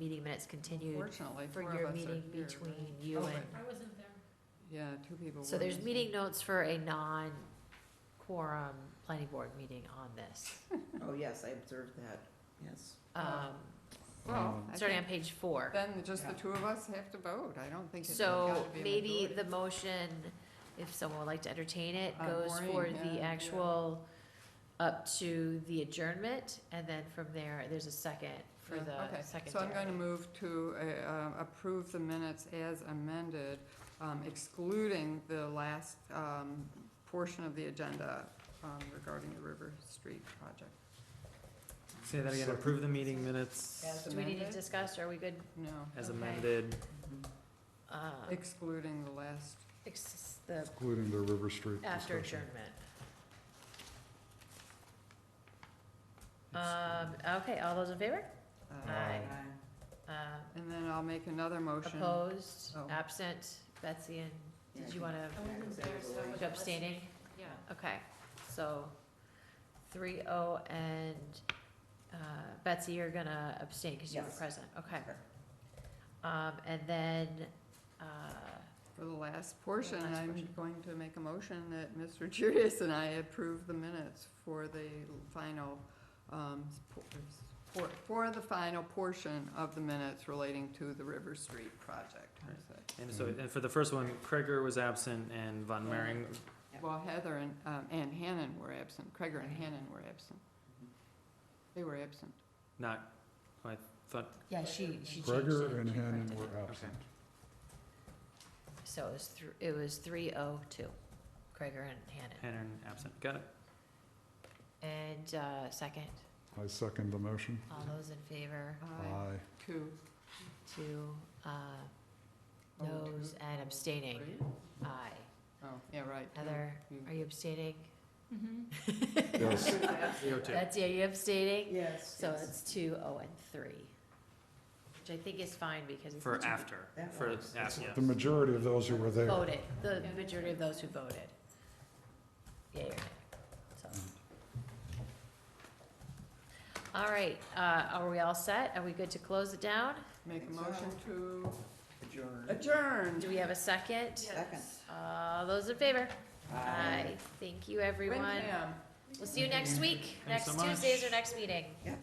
meeting minutes continued Fortunately, for four of us are here. your meeting right? between you Oh, and, I wasn't there. Yeah, two people were. so there's missing. meeting notes for a non-quorum planning board meeting on this. Oh, yes, I observed that, yes. Um, Well, Oh. I starting on think page four. then just the two of us have to vote. I don't think it's So gotta be a maybe majority. the motion, if someone would like to entertain it, Uh, goes for Maureen, yeah, the yeah. actual, up to the adjournment, and then from there, there's a second for Yeah, the okay. secondary. So I'm going to move to uh, um, approve the minutes as amended, um, excluding the last um, portion of the agenda um, regarding the River Street project. Say that again, approve the meeting minutes As Do we need to amended? discuss, are we good? No, as Okay. amended. uh, excluding the last, ex- The Including the River Street after discussion. adjournment. Um, okay, all those in favor? uh, um, Aye. Uh, and then I'll make another motion. Ah. opposed, Oh. absent, Betsy and, Yeah, did I you think- wanna, I wasn't there, so I wasn't abstaining? listening. Yeah. Okay, so three oh and, uh, Betsy, you're gonna abstain because you were Yes. present, okay. Sure. Um, and then, uh, For the last portion, last I'm portion. going to make a motion that Mr. Judas and I approve the minutes for the final, um, s- por- s- for, for the final portion of the minutes relating to the River Street project. And so, and for the first one, Kreger was absent and Von Mering, Well, Heather and, um, and Hannon were absent, Kreger and Hannon were absent. Mm-hmm. They were absent. not, I thought, yeah, she, she changed it. Gregor and She corrected Hannon it. were absent. So it was thr- it was three oh two, Gregor and Hannon. Hannon absent, got it? And, uh, second, I second the motion. all those in favor, Aye, Aye. two, two, uh, Oh, two. noes and abstaining, three? aye. Oh, yeah, right. two, Heather, two. are you abstaining? Mm-hmm. Yes. Three oh two. Betsy, are you abstaining? Yes. So yes. it's two, oh, and three, which I think is fine because it's For after, That for, works. af- yeah. The majority of those who were there. voted, the majority of those who voted. Yeah, you're right. So. All right, uh, are we all set? Are we good to close it down? Make a Think so. motion to Adjourned. adjourn. Do we have a second? Second. All those in favor? Aye. Thank you, everyone. Windham. We'll see you next week, Thanks next so Tuesday's much. or next meeting. Yep.